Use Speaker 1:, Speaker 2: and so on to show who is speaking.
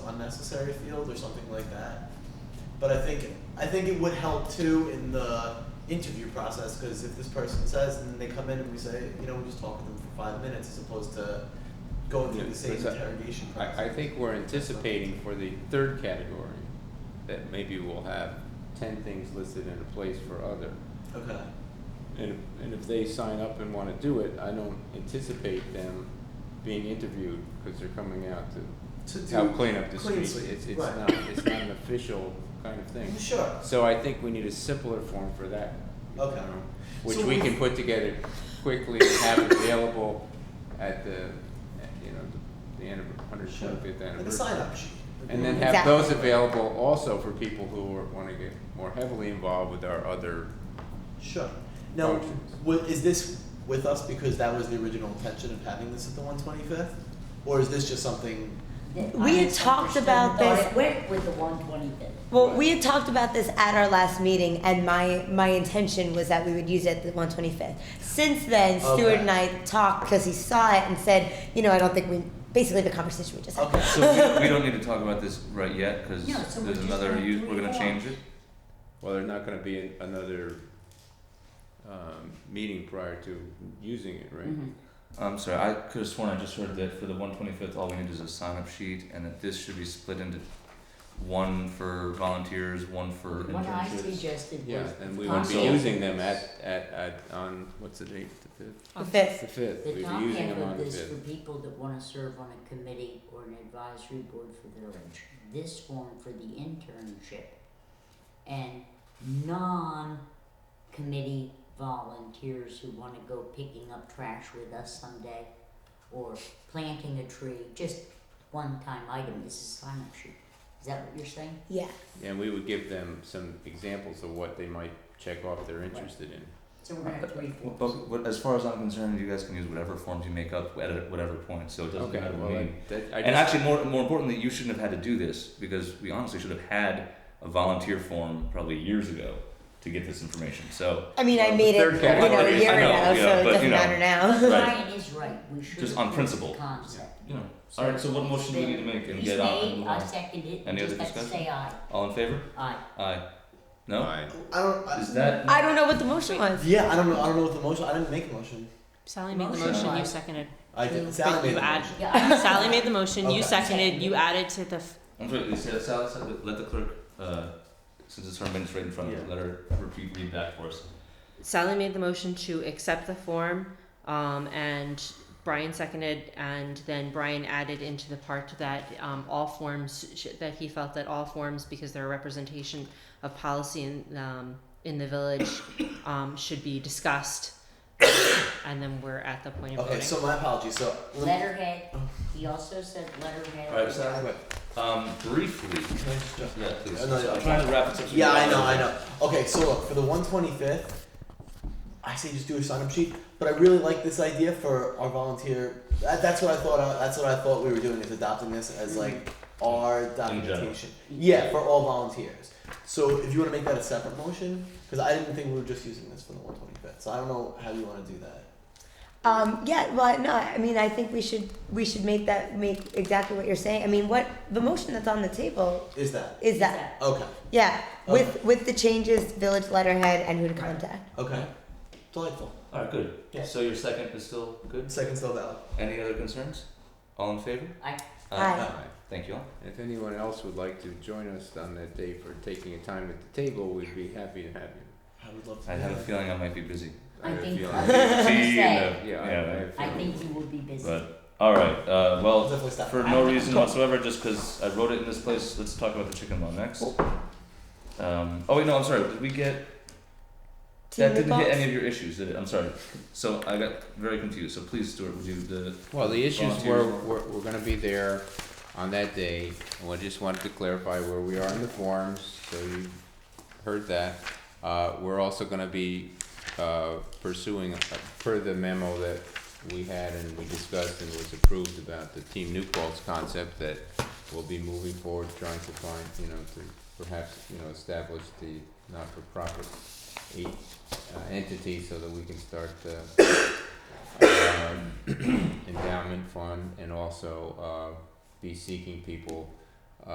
Speaker 1: unnecessary field or something like that. But I think I think it would help too in the interview process because if this person says and then they come in and we say, you know, we just talk to them for five minutes as opposed to going through the same
Speaker 2: Because I-
Speaker 1: interrogation process.
Speaker 2: I, I think we're anticipating for the third category, that maybe we'll have ten things listed in a place for other.
Speaker 1: Okay.
Speaker 2: And, if- and if they sign up and wanna do it, I don't anticipate them being interviewed, cause they're coming out to
Speaker 1: To do
Speaker 2: help clean up the
Speaker 1: clean
Speaker 2: streets.
Speaker 1: sweep,
Speaker 2: It's, it's
Speaker 1: right. Mm,
Speaker 2: not, it's not an official kind of thing.
Speaker 1: Sure.
Speaker 2: So I think we need a simpler form for that. you
Speaker 1: Okay.
Speaker 2: know, Which
Speaker 1: So
Speaker 2: we
Speaker 1: we-
Speaker 2: can put together quickly and have it available at the, at, you know, the hundred
Speaker 1: Sure.
Speaker 2: twenty-fifth anniversary.
Speaker 1: Like a sign up sheet.
Speaker 2: And then have
Speaker 3: Exactly.
Speaker 2: those available also for people who are, wanna get more heavily involved with our other,
Speaker 1: Sure. Now,
Speaker 2: Functions.
Speaker 1: wa- is this with us because that was the original intention of having this at the one twenty fifth? Or is this just something,
Speaker 3: We had talked about this-
Speaker 4: Or it went with the one twenty-fifth.
Speaker 3: Well, we had talked about this at our last meeting, and my, my intention was that we would use it at the one twenty fifth. Since then, Stuart and I talked because he saw it and said, you know, I don't think we basically the conversation we just had.
Speaker 1: okay,
Speaker 5: So we, we don't need to talk about this right yet, cause
Speaker 4: No, so we're
Speaker 5: there's
Speaker 4: just
Speaker 5: another,
Speaker 4: gonna
Speaker 5: use-
Speaker 4: do
Speaker 5: we're
Speaker 4: it
Speaker 5: gonna
Speaker 4: all.
Speaker 5: change it?
Speaker 2: well, there's not gonna be an- another, um, meeting prior to using it, right?
Speaker 4: Mm-hmm.
Speaker 3: Mm-hmm.
Speaker 5: I'm sorry, I could've sworn I just heard that for the one twenty-fifth, all we need is a sign-up sheet, and that this should be split into one for volunteers, one for
Speaker 4: What I
Speaker 5: internships.
Speaker 4: suggested
Speaker 2: Yeah,
Speaker 4: was
Speaker 2: and we would be
Speaker 5: Possible.
Speaker 2: using them at, at, at, on, what's the date, the fifth?
Speaker 3: The
Speaker 2: The
Speaker 3: fifth.
Speaker 2: fifth,
Speaker 4: The
Speaker 2: we'd
Speaker 4: top
Speaker 2: be using
Speaker 4: half
Speaker 2: them on
Speaker 4: of
Speaker 2: the
Speaker 4: this for
Speaker 2: fifth.
Speaker 4: people that wanna serve on a committee or an advisory board for their village. This form for the internship and non-committee volunteers who wanna go picking up trash with us someday or planting a tree, just one-time item, this is sign-up sheet. Is that what you're saying?
Speaker 3: Yeah.
Speaker 2: And we would give them some examples of what they might check off they're interested in.
Speaker 4: So we're gonna have three forms.
Speaker 5: But, but as far as I'm concerned, you guys can use whatever forms you make up at whatever point, so it doesn't
Speaker 2: Okay,
Speaker 5: matter to me.
Speaker 2: well, that- that, I
Speaker 5: And
Speaker 2: just,
Speaker 5: actually, more more importantly, you shouldn't have had to do this because we honestly should have had a volunteer form probably years ago to get this information. So
Speaker 3: I mean, I
Speaker 2: Well,
Speaker 3: made
Speaker 2: the
Speaker 3: it,
Speaker 2: third
Speaker 3: you
Speaker 2: category
Speaker 3: know, a
Speaker 2: is-
Speaker 3: year
Speaker 2: I know,
Speaker 3: ago, so
Speaker 5: yeah,
Speaker 3: it
Speaker 5: but, you
Speaker 3: doesn't
Speaker 5: know,
Speaker 3: matter now.
Speaker 5: Right.
Speaker 4: Ryan is right, we should.
Speaker 5: Just on
Speaker 4: have
Speaker 5: principle.
Speaker 4: the concept.
Speaker 5: you know, all right. So what motion do we need to make and
Speaker 4: He's
Speaker 5: get on? and
Speaker 4: made,
Speaker 5: move
Speaker 4: I
Speaker 5: on?
Speaker 4: second it,
Speaker 5: Any
Speaker 4: you
Speaker 5: other
Speaker 4: just have to
Speaker 5: discussion?
Speaker 4: say aye,
Speaker 5: All in favor?
Speaker 4: aye.
Speaker 5: Aye. No.
Speaker 2: Aye.
Speaker 1: I don't, I,
Speaker 5: Is that?
Speaker 3: I don't know what the motion was.
Speaker 1: yeah, I don't know, I don't know what the motion, I didn't make a motion.
Speaker 6: Sally made the
Speaker 4: Motion.
Speaker 6: motion,
Speaker 4: Aye.
Speaker 6: you seconded.
Speaker 1: I
Speaker 6: You-
Speaker 1: did, Sally made
Speaker 6: you
Speaker 1: the
Speaker 6: add-
Speaker 1: motion.
Speaker 4: Yeah, I-
Speaker 6: Sally made the motion,
Speaker 1: Okay.
Speaker 6: you seconded, you added to the, f-
Speaker 5: I'm sorry. Is that, Sally, Sally, let the clerk, uh, since it's her minutes right in front of her,
Speaker 1: Yeah.
Speaker 5: let her repeat read that for us.
Speaker 6: Sally made the motion to accept the form, um, and Brian seconded, and then Brian added into the part that, um, all forms, sh- that he felt that all forms, because they're a representation of policy in, um, in the village, um, should be discussed. And then we're at the point of
Speaker 1: Okay,
Speaker 6: voting.
Speaker 1: so my apologies, so. let me-
Speaker 4: Letterhead, he also said letterhead.
Speaker 5: All right, Sally. Um, briefly.
Speaker 1: Can I just jump?
Speaker 5: Yeah, please.
Speaker 1: Oh, no,
Speaker 5: I'm
Speaker 1: okay.
Speaker 5: trying to wrap it up. so we
Speaker 1: Yeah,
Speaker 5: can-
Speaker 1: I know, I know. Okay, so look, for the 125th, I say just do a sign up sheet, but I really like this idea for our volunteer. That, that's what I thought. I, that's what I thought we were doing is adopting this
Speaker 6: Mm-hmm.
Speaker 1: as like our documentation. Yeah, for all volunteers. So if you want to make that a separate motion, because I didn't think we were just using this for the 125th. So I don't know how you want to do that.
Speaker 3: Um, yeah, well, no, I mean, I think we should, we should make that, make exactly what you're saying. I mean, what, the motion that's on the table
Speaker 1: Is that
Speaker 3: is that,
Speaker 1: okay?
Speaker 3: yeah,
Speaker 5: Uh,
Speaker 3: with, with the changes, village letterhead and who to contact.
Speaker 1: Okay, delightful.
Speaker 5: All right, good.
Speaker 1: Yeah.
Speaker 5: So your second is still good.
Speaker 1: Second still valid.
Speaker 5: Any other concerns? All in favor?
Speaker 4: Aye.
Speaker 5: uh,
Speaker 3: Aye.
Speaker 2: Aye.
Speaker 5: Thank you all.
Speaker 2: If anyone else would like to join us on that day for taking a time at the table, we'd be happy to have you.
Speaker 1: I would love to.
Speaker 5: I
Speaker 1: do
Speaker 5: have a
Speaker 1: that.
Speaker 5: feeling I might be busy.
Speaker 4: I
Speaker 2: have a
Speaker 4: think-
Speaker 2: feeling-
Speaker 4: I think-
Speaker 5: Tea
Speaker 4: say.
Speaker 5: and a-
Speaker 2: Yeah, I- I
Speaker 5: yeah.
Speaker 2: have
Speaker 4: I
Speaker 2: feeling-
Speaker 4: think you will be busy.
Speaker 5: But all right. Uh,
Speaker 1: I'll
Speaker 5: well,
Speaker 1: definitely stop.
Speaker 5: for no reason whatsoever, just because I wrote it in this place. Let's talk about the chicken law next.
Speaker 1: Oh.
Speaker 5: Um, oh wait, no, I'm sorry. Did we get that? Didn't hit any of your issues, did it? I'm sorry. So I got very confused. So please, Stuart, would you the
Speaker 2: Well, the issues were,
Speaker 5: volunteers
Speaker 2: we're, we're gonna be there on that day, and we just wanted to clarify where we are in the forms, so you heard that. Uh, we're also gonna be, uh, pursuing, uh, per the memo that we had and we discussed and was approved about the Team New Paltz concept that we'll be moving forward, trying to find, you know, to perhaps, you know, establish the not-for-profit eight, uh, entity so that we can start, uh, um, endowment fund and also uh, be seeking people